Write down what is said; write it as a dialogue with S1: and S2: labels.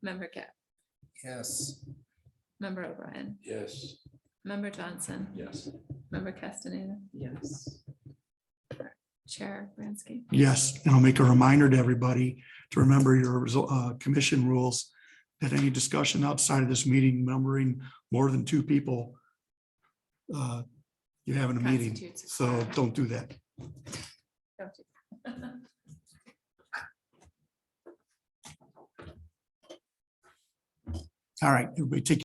S1: Member Cap,
S2: Yes.
S1: member O'Brien,
S3: Yes.
S1: member Johnson,
S3: Yes.
S1: member Castaneda,
S4: Yes.
S1: Chair Bransky.
S5: Yes, and I'll make a reminder to everybody to remember your resol- uh, commission rules that any discussion outside of this meeting, numbering more than two people, uh, you have in a meeting,
S1: Constitutes a
S5: so
S1: quorum.
S5: don't do that.
S1: Don't do-
S5: All right, everybody take